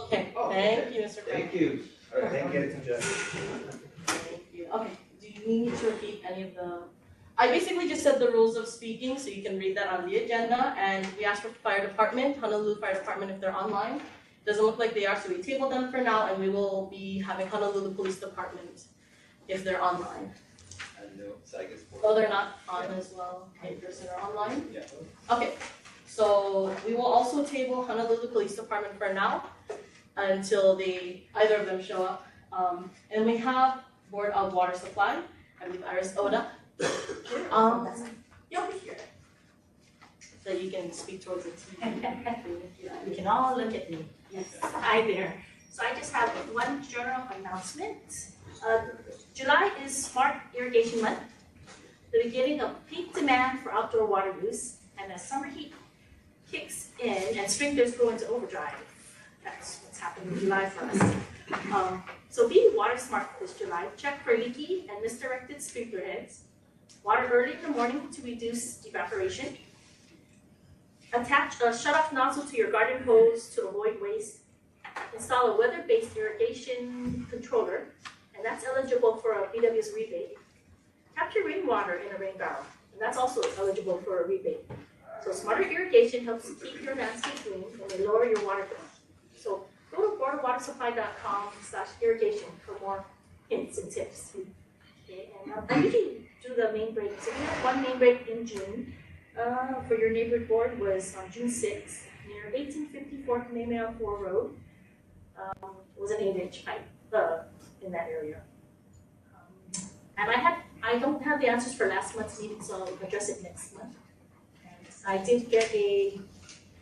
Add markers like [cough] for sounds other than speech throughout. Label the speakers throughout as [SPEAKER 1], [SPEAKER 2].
[SPEAKER 1] Okay,
[SPEAKER 2] Oh,
[SPEAKER 1] thank you, Mr. Frank.
[SPEAKER 2] Thank you. All right, thank you,
[SPEAKER 1] Thank you. Okay, do you need me to repeat any of the? I basically just said the rules of speaking, so you can read that on the agenda, and we asked for fire department, Honolulu Fire Department if they're online. Doesn't look like they are, so we tabled them for now, and we will be having Honolulu Police Department if they're online.
[SPEAKER 2] I know, so I guess.
[SPEAKER 1] Oh, they're not on as well, in person or online?
[SPEAKER 2] Yeah.
[SPEAKER 1] Okay, so we will also table Honolulu Police Department for now until they, either of them show up. Um, and we have Board of Water Supply, I believe Iris Oda, um, you'll be here. So you can speak towards the
[SPEAKER 3] [laughs]
[SPEAKER 1] TV.
[SPEAKER 4] [laughs] You can all look at me.
[SPEAKER 3] Yes, hi there. So I just have one general announcement. Uh, July is Smart Irrigation Month. The beginning of peak demand for outdoor water use, and as summer heat kicks in and sprinklers go into overdrive, that's what's happening in July for us. Um, So be water smart this July. Check for leaky and misdirected sprinkler heads. Water early in the morning to reduce evaporation. Attach a shut-off nozzle to your garden hose to avoid waste. Install a weather-based irrigation controller, and that's eligible for a BW's rebate. Capture rainwater in a rain barrel, and that's also eligible for a rebate. So smarter irrigation helps keep your landscape green and may lower your water bill. So go to boardwatersupply.com slash irrigation for more hints and tips. Okay, and um, I usually do the main break, so we have one main break in June. Uh, for your neighborhood board was on June sixth, near eighteen fifty-four Kamehameha Four Road. Um, it was an eight-inch pipe, uh, in that area. Um, And I had, I don't have the answers for last month's meeting, so I'll address it next month. And I did get a,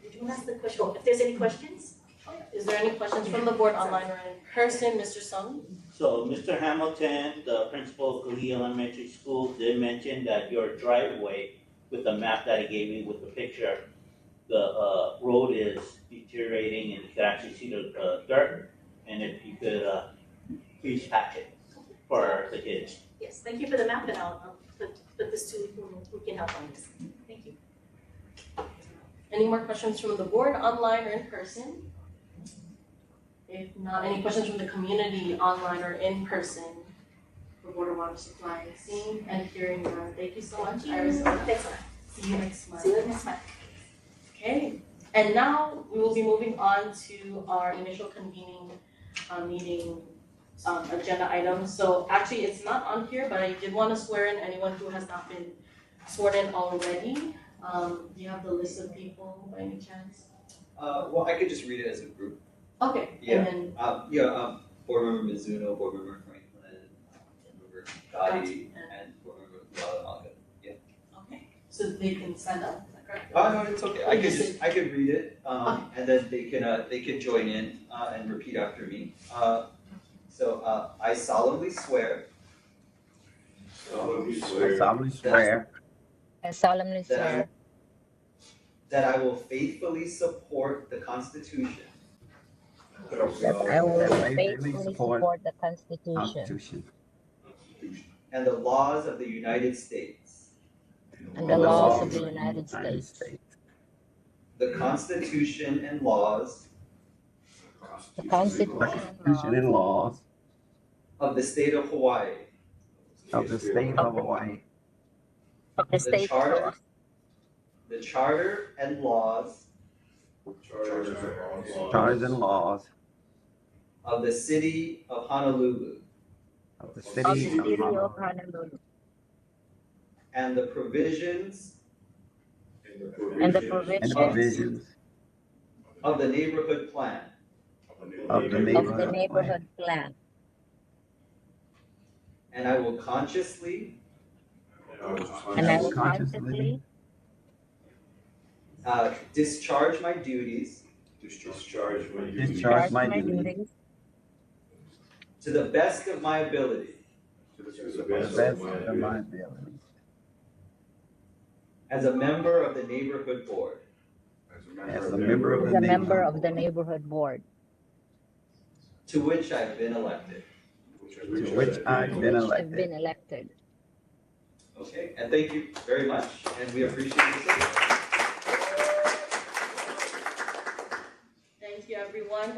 [SPEAKER 3] did you ask the question, oh, if there's any questions?
[SPEAKER 1] Is there any questions from the board online or in person, Mr. Sung?
[SPEAKER 5] So Mr. Hamilton, the principal of Cooley Elementary School, did mention that your driveway with the map that he gave me with the picture, the uh road is deteriorating and you can actually see the uh dirt. And if you could uh please patch it for the kids.
[SPEAKER 3] Yes, thank you for the map and I'll, I'll put, put this to who, who can help on this. Thank you.
[SPEAKER 1] Any more questions from the board online or in person? If not, any questions from the community online or in person for Board of Water Supply? Seeing and hearing none, thank you so much, Iris.
[SPEAKER 3] Thanks, Mark.
[SPEAKER 1] See you next
[SPEAKER 3] See
[SPEAKER 1] month.
[SPEAKER 3] you next month.
[SPEAKER 1] Okay, and now we will be moving on to our initial convening uh meeting um agenda item. So actually, it's not on here, but I did wanna swear in anyone who has not been sworn in already. Um do you have the list of people by any chance?
[SPEAKER 2] Uh, well, I could just read it as a group.
[SPEAKER 1] Okay,
[SPEAKER 2] Yeah.
[SPEAKER 1] and then
[SPEAKER 2] Um, yeah, um, board member Mizuno, board member Franklin, board member Gotti, and board member Lalaga.
[SPEAKER 1] Okay, so they can stand up, is that correct?
[SPEAKER 2] Oh, no, it's okay, I
[SPEAKER 1] You
[SPEAKER 2] could
[SPEAKER 1] just
[SPEAKER 2] just, I could read it, um, and then they can, uh, they can join in, uh, and repeat after me. Uh, so, uh, I solemnly swear
[SPEAKER 6] solemnly
[SPEAKER 7] I
[SPEAKER 6] swear
[SPEAKER 7] solemnly swear
[SPEAKER 8] I solemnly
[SPEAKER 2] that
[SPEAKER 8] swear
[SPEAKER 2] I, that I will faithfully support the Constitution
[SPEAKER 7] that I will faithfully
[SPEAKER 8] faithfully
[SPEAKER 7] support
[SPEAKER 8] support the
[SPEAKER 7] the
[SPEAKER 8] Constitution
[SPEAKER 7] Constitution
[SPEAKER 2] and the laws of the United States,
[SPEAKER 8] and the laws of the United States,
[SPEAKER 2] the Constitution and laws
[SPEAKER 8] the
[SPEAKER 6] Constitution
[SPEAKER 7] the
[SPEAKER 8] Constitution
[SPEAKER 7] Constitution
[SPEAKER 8] and
[SPEAKER 7] and laws
[SPEAKER 2] of the State of Hawaii,
[SPEAKER 7] of the state of Hawaii,
[SPEAKER 8] of the
[SPEAKER 2] the
[SPEAKER 8] state
[SPEAKER 2] Charter, the Charter and laws
[SPEAKER 6] Charter and laws.
[SPEAKER 7] charters and laws
[SPEAKER 2] of the City of Honolulu,
[SPEAKER 7] of the
[SPEAKER 8] of the
[SPEAKER 7] city of
[SPEAKER 8] city of
[SPEAKER 7] Honolulu,
[SPEAKER 8] Honolulu,
[SPEAKER 2] and the provisions
[SPEAKER 8] and the
[SPEAKER 7] and the
[SPEAKER 8] provisions
[SPEAKER 7] provisions
[SPEAKER 2] of the neighborhood plan,
[SPEAKER 7] of the
[SPEAKER 8] of the
[SPEAKER 7] neighborhood plan.
[SPEAKER 8] neighborhood plan,
[SPEAKER 2] and I will consciously,
[SPEAKER 8] and I will
[SPEAKER 7] will consciously
[SPEAKER 8] consciously
[SPEAKER 2] uh, discharge my duties
[SPEAKER 6] Discharge my duties.
[SPEAKER 7] Discharge my
[SPEAKER 8] my
[SPEAKER 7] duties
[SPEAKER 8] duties
[SPEAKER 2] to the best of my ability,
[SPEAKER 6] To the
[SPEAKER 7] to the
[SPEAKER 6] best of my
[SPEAKER 7] best of my
[SPEAKER 6] ability.
[SPEAKER 7] ability.
[SPEAKER 2] as a member of the neighborhood board,
[SPEAKER 7] As a member of
[SPEAKER 8] as
[SPEAKER 7] the
[SPEAKER 8] a member
[SPEAKER 7] neighborhood
[SPEAKER 8] of the neighborhood board,
[SPEAKER 2] to which I've been elected.
[SPEAKER 7] to which I've been
[SPEAKER 8] which have
[SPEAKER 7] elected.
[SPEAKER 8] been elected.
[SPEAKER 2] Okay, and thank you very much, and we appreciate you.
[SPEAKER 1] Thank you, everyone.